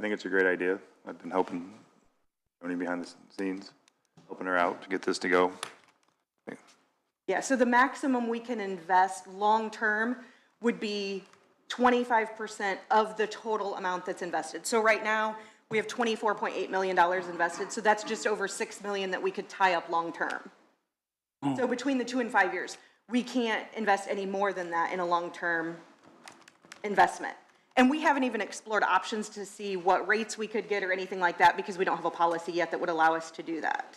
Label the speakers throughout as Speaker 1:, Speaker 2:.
Speaker 1: think it's a great idea. I've been helping Tony behind the scenes, helping her out to get this to go.
Speaker 2: Yeah, so the maximum we can invest long-term would be 25% of the total amount that's invested. So right now, we have $24.8 million invested, so that's just over 6 million that we could tie up long-term. So between the two and five years, we can't invest any more than that in a long-term investment. And we haven't even explored options to see what rates we could get or anything like that, because we don't have a policy yet that would allow us to do that.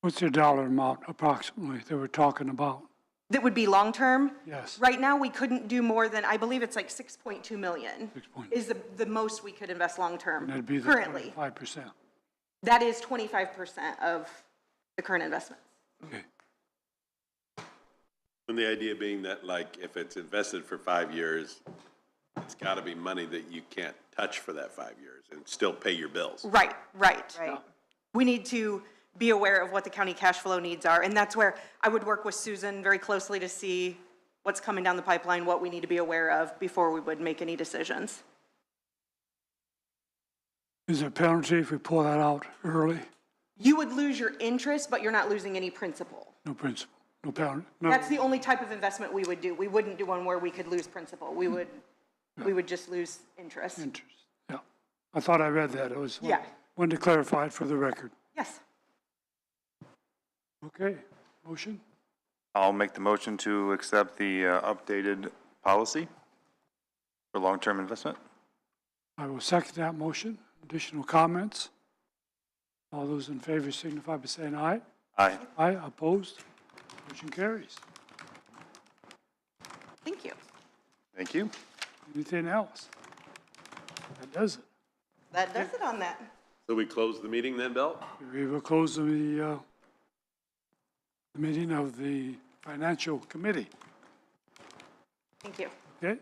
Speaker 3: What's the dollar amount approximately that we're talking about?
Speaker 2: That would be long-term?
Speaker 3: Yes.
Speaker 2: Right now, we couldn't do more than, I believe it's like 6.2 million.
Speaker 3: 6.2.
Speaker 2: Is the, the most we could invest long-term
Speaker 3: That'd be the
Speaker 2: currently.
Speaker 3: Five percent.
Speaker 2: That is 25% of the current investment.
Speaker 3: Okay.
Speaker 4: And the idea being that like, if it's invested for five years, it's gotta be money that you can't touch for that five years and still pay your bills.
Speaker 2: Right, right. Right. We need to be aware of what the county cash flow needs are, and that's where I would work with Susan very closely to see what's coming down the pipeline, what we need to be aware of before we would make any decisions.
Speaker 3: Is there a penalty if we pull that out early?
Speaker 2: You would lose your interest, but you're not losing any principal.
Speaker 3: No principle, no penalty, no,
Speaker 2: That's the only type of investment we would do. We wouldn't do one where we could lose principal. We would, we would just lose interest.
Speaker 3: interest. Yeah. I thought I read that. It was.
Speaker 2: Yeah.
Speaker 3: Wanted to clarify it for the record.
Speaker 2: Yes.
Speaker 3: Okay, motion?
Speaker 1: I'll make the motion to accept the uh, updated policy for long-term investment.
Speaker 3: I will second that motion. Additional comments? All those in favor signify by saying aye.
Speaker 1: Aye.
Speaker 3: Aye, opposed? Motion carries.
Speaker 2: Thank you.
Speaker 1: Thank you.
Speaker 3: Anything else? That does it.
Speaker 2: That does it on that.
Speaker 4: So we close the meeting then, Bill?
Speaker 3: We will close the, uh, the meeting of the Financial Committee,
Speaker 2: Thank you.
Speaker 3: okay?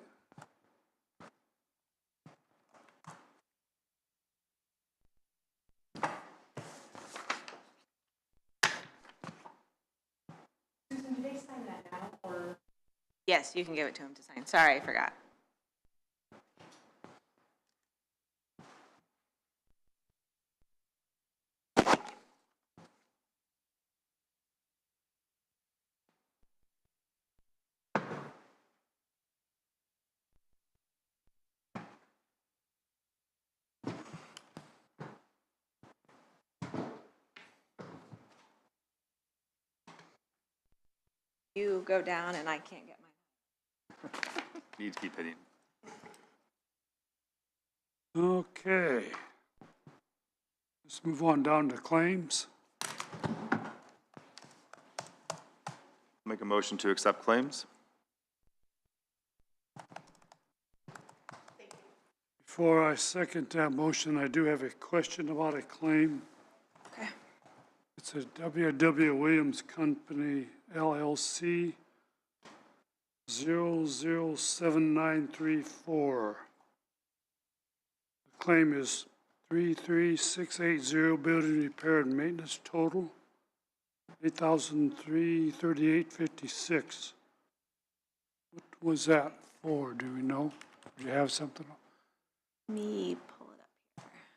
Speaker 5: Yes, you can give it to him to sign. Sorry, I forgot. You go down and I can't get mine.
Speaker 1: Need to keep hitting.
Speaker 3: Okay. Let's move on down to claims.
Speaker 1: Make a motion to accept claims.
Speaker 3: Before I second that motion, I do have a question about a claim.
Speaker 5: Okay.
Speaker 3: It's a W.W. Williams Company LLC 007934. The claim is 33680, building repair and maintenance total, 833856 What was that for, do we know? Do you have something?
Speaker 5: Let me pull it up here.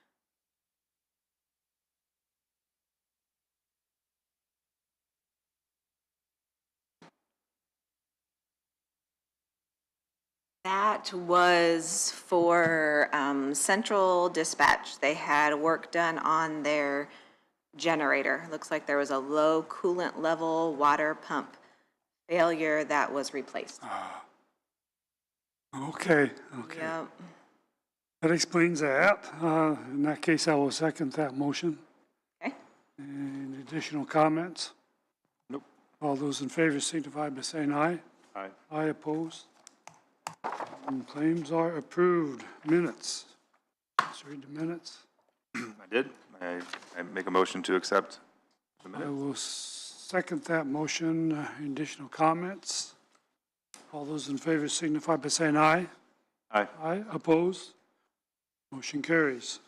Speaker 5: That was for um, Central Dispatch. They had work done on their generator. Looks like there was a low coolant level water pump failure that was replaced.
Speaker 3: Okay, okay.
Speaker 5: Yep.
Speaker 3: That explains that. Uh, In that case, I will second that motion.
Speaker 5: Okay.
Speaker 3: Any additional comments?
Speaker 1: Nope.
Speaker 3: All those in favor signify by saying aye.
Speaker 1: Aye.
Speaker 3: Aye opposed. And Claims are approved. Minutes. Let's read the minutes.
Speaker 1: I did. I, I make a motion to accept the
Speaker 3: I
Speaker 1: minutes.
Speaker 3: will second that motion. Uh, Additional comments? All those in favor signify by saying aye.
Speaker 1: Aye.
Speaker 3: Aye opposed. Motion carries.